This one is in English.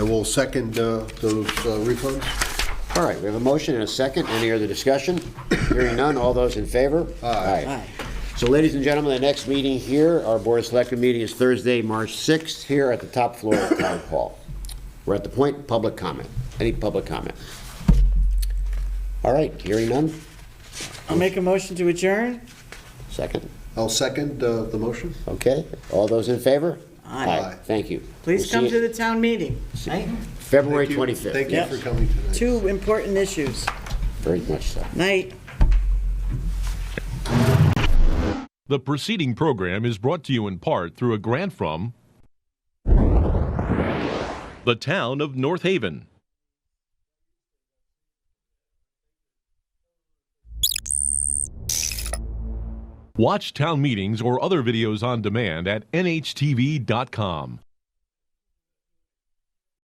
I will second uh, those uh, refunds. All right, we have a motion and a second. Any other discussion? Hearing none, all those in favor? Aye. So ladies and gentlemen, the next meeting here, our Board of Selectmen meeting is Thursday, March 6th, here at the top floor of Town Hall. We're at the point, public comment. Any public comment? All right, hearing none, I'll make a motion to adjourn? second. I'll second uh, the motion. Okay, all those in favor? Aye. Thank you. We'll Please see come you to the town meeting, right? February Thank you. 25th. Thank you Yep. for coming tonight. Two important issues. Very much so. Night. The preceding program is brought to you in part through a grant from the town of North Haven. Watch town meetings or other videos on demand at nhtv.com.